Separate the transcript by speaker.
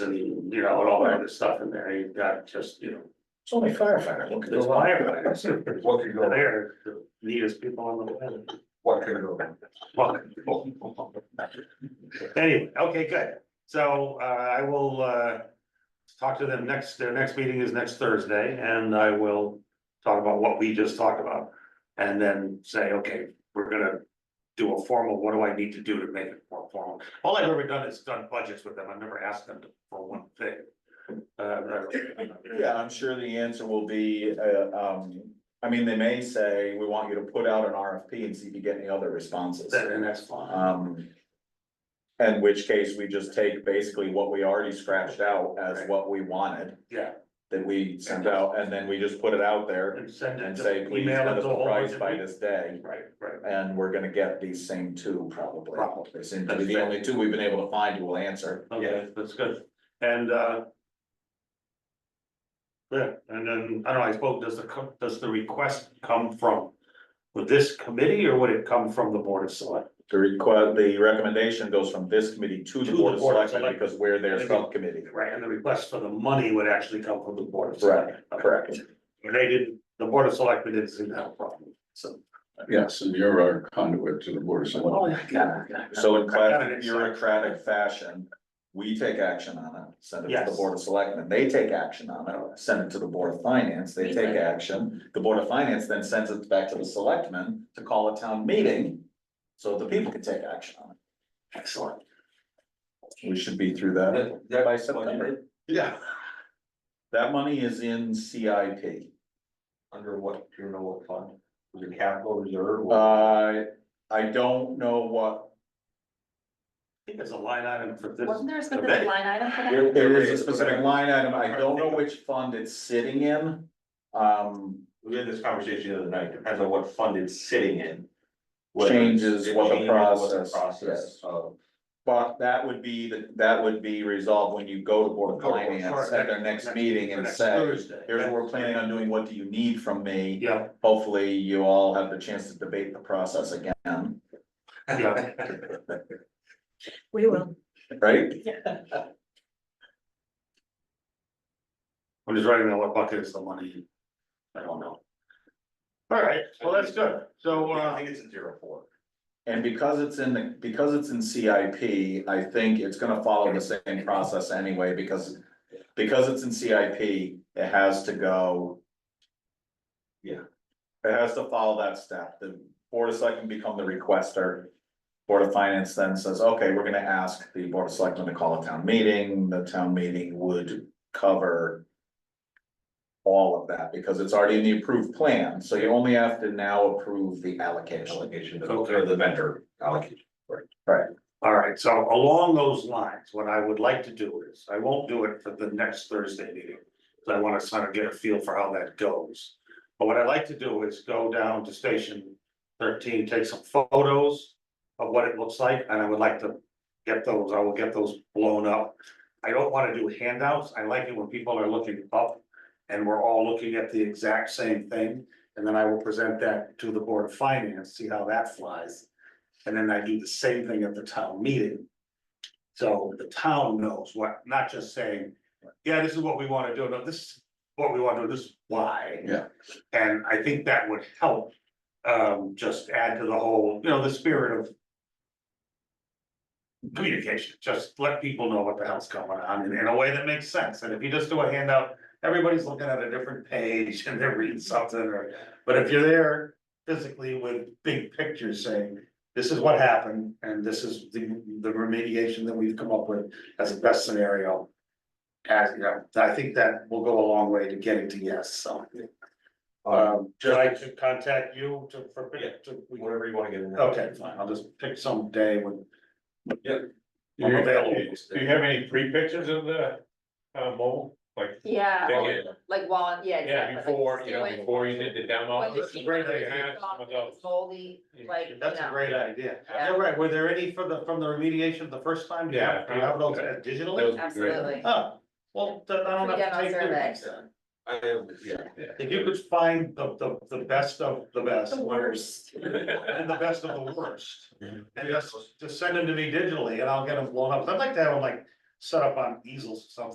Speaker 1: you know, and all that other stuff in there, you've got just, you know.
Speaker 2: It's only firefighters. What could
Speaker 1: There's
Speaker 2: go wrong?
Speaker 1: firefighters,
Speaker 3: What could go, wrong?
Speaker 1: there, the neatest people on the planet.
Speaker 3: what could go? wrong?
Speaker 1: Well, Anyway, okay, good. So uh, I will uh. Talk to them next, their next meeting is next Thursday and I will talk about what we just talked about. And then say, okay, we're gonna do a formal, what do I need to do to make it more formal? All I've ever done is done budgets with them. I've never asked them to- for one thing. Uh,
Speaker 4: Yeah, I'm sure the answer will be, uh, um, I mean, they may say, we want you to put out an RFP and see if you get any other responses.
Speaker 1: that- and that's fine.
Speaker 4: Um. In which case, we just take basically what we already scratched out as
Speaker 1: Right.
Speaker 4: what we wanted,
Speaker 1: Yeah,
Speaker 4: that we sent out, and then we just put it out there
Speaker 1: and send it.
Speaker 4: and
Speaker 1: to-
Speaker 4: say, please
Speaker 1: email
Speaker 4: send
Speaker 1: it
Speaker 4: us
Speaker 1: to
Speaker 4: the
Speaker 1: a whole
Speaker 4: price
Speaker 1: bunch of
Speaker 4: by
Speaker 1: people.
Speaker 4: this day.
Speaker 1: Right, right.
Speaker 4: And we're gonna get these same two probably.
Speaker 1: Probably.
Speaker 4: They seem to be the only two we've been able to find who will answer.
Speaker 1: Okay, that's good, and, uh. Yeah, and then, I don't know, I suppose, does the, co- does the request come from? With this committee, or would it come from the board of select?
Speaker 4: The request, the recommendation goes from this committee to the board of selectmen
Speaker 1: Select-
Speaker 4: because we're their
Speaker 1: Maybe.
Speaker 4: subcommittee.
Speaker 1: Right, and the request for the money would actually come from the board of
Speaker 4: Right,
Speaker 1: select.
Speaker 4: correct.
Speaker 1: And they didn't, the board of selectmen didn't seem to have a problem, so.
Speaker 2: Yes, and you're our conduit to the board of selectmen.
Speaker 1: yeah, yeah.
Speaker 4: So in
Speaker 1: I got
Speaker 4: classic
Speaker 1: it.
Speaker 4: bureaucratic fashion, we take action on it, send it to the
Speaker 1: Yes.
Speaker 4: board of selectmen, they take action on it, send it to the board of finance, they take action. The board of finance then sends it back to the selectmen to call a town meeting, so the people can take action on it.
Speaker 1: Excellent,
Speaker 4: We should be through that
Speaker 3: That- that-
Speaker 4: by September. Yeah. That money is in CIP.
Speaker 3: Under what, do you know what fund? Was it capital reserve? or-
Speaker 4: Uh, I don't know what,
Speaker 1: I think there's a line item for this.
Speaker 5: Wasn't there a
Speaker 1: event.
Speaker 5: specific line item for that?
Speaker 3: There-
Speaker 4: there
Speaker 3: there
Speaker 4: is a specific line item, I don't know which fund it's sitting in. Um,
Speaker 3: We had this conversation the other night, depends on what fund it's sitting in. whether it's-
Speaker 4: changes
Speaker 3: it
Speaker 4: what the
Speaker 3: changes what the
Speaker 4: process,
Speaker 3: Process
Speaker 4: yes.
Speaker 3: of,
Speaker 4: But that would be, the- that would be resolved when you go to Board of
Speaker 1: Go to Board of
Speaker 4: Finance at
Speaker 1: Finance
Speaker 4: their Oh, next
Speaker 1: next-
Speaker 4: meeting
Speaker 1: for
Speaker 4: and
Speaker 1: next
Speaker 4: say,
Speaker 1: Thursday.
Speaker 4: here's what we're planning on doing, what do you need from me?
Speaker 1: Yeah,
Speaker 4: Hopefully you all have the chance to debate the process again,
Speaker 1: yeah,
Speaker 5: We will.
Speaker 4: right?
Speaker 1: I'm just writing down what bucket is the money, I don't know. All right, well, that's good, so,
Speaker 3: I
Speaker 1: uh.
Speaker 3: think it's a zero four.
Speaker 4: And because it's in the, because it's in CIP, I think it's gonna follow the same process anyway, because. Because it's in CIP, it has to go.
Speaker 3: Yeah.
Speaker 4: It has to follow that step, the board of selectmen become the requester. Board of Finance then says, okay, we're gonna ask the board of selectmen to call a town meeting, the town meeting would cover. All of that, because it's already in the approved plan, so you only have to now approve the allocation.
Speaker 3: Allocation,
Speaker 1: Okay.
Speaker 3: or the vendor allocation.
Speaker 1: All right, so along those lines, what I would like to do is, I won't do it for the next Thursday meeting. Cause I wanna sort of get a feel for how that goes. But what I'd like to do is go down to station thirteen, take some photos of what it looks like, and I would like to get those, I will get those blown up. I don't wanna do handouts, I like it when people are looking up and we're all looking at the exact same thing. And then I will present that to the Board of Finance, see how that flies. And then I do the same thing at the town meeting. So the town knows what, not just saying, yeah, this is what we wanna do, no, this is what we wanna do, this is why.
Speaker 2: Yeah.
Speaker 1: And I think that would help, um, just add to the whole, you know, the spirit of. Communication, just let people know what the hell's going on in, in a way that makes sense, and if you just do a handout, everybody's looking at a different page and they're reading something or. But if you're there physically with big pictures saying, this is what happened, and this is the, the remediation that we've come up with as a best scenario. As, you know, I think that will go a long way to getting to yes, so. Um, should I to contact you to, for,
Speaker 3: Yeah.
Speaker 1: to, we-
Speaker 3: Whatever you wanna get in there.
Speaker 1: okay, fine, I'll just pick some day when.
Speaker 3: Yep.
Speaker 1: I'm available.
Speaker 6: Do you have any free pictures of the uh mobile, like?
Speaker 5: Yeah,
Speaker 6: Yeah,
Speaker 5: like wall, yeah, exactly. like
Speaker 6: before,
Speaker 5: stay
Speaker 6: you know,
Speaker 5: away
Speaker 6: before you did the
Speaker 5: when
Speaker 6: demo.
Speaker 5: the
Speaker 1: that's a
Speaker 5: sheet
Speaker 1: great
Speaker 5: was
Speaker 6: idea.
Speaker 5: off,
Speaker 6: Some of those.
Speaker 5: it's moldy, like, you
Speaker 1: That's a
Speaker 5: know.
Speaker 1: great idea.
Speaker 5: Yeah.
Speaker 1: You're right, were there any for the, from the remediation the first time? Do you have- Do you have those
Speaker 6: Yeah.
Speaker 1: digitally?
Speaker 5: Absolutely.
Speaker 1: Oh, well, then I don't have to
Speaker 5: Pre-demo
Speaker 1: take.
Speaker 5: survey.
Speaker 1: pictures.
Speaker 3: I have, yeah.
Speaker 1: If you could find the, the, the best of the best. And the best of the worst. And just, just send them to me digitally and I'll get them blown up. I'd like to have them like set up on easels or something.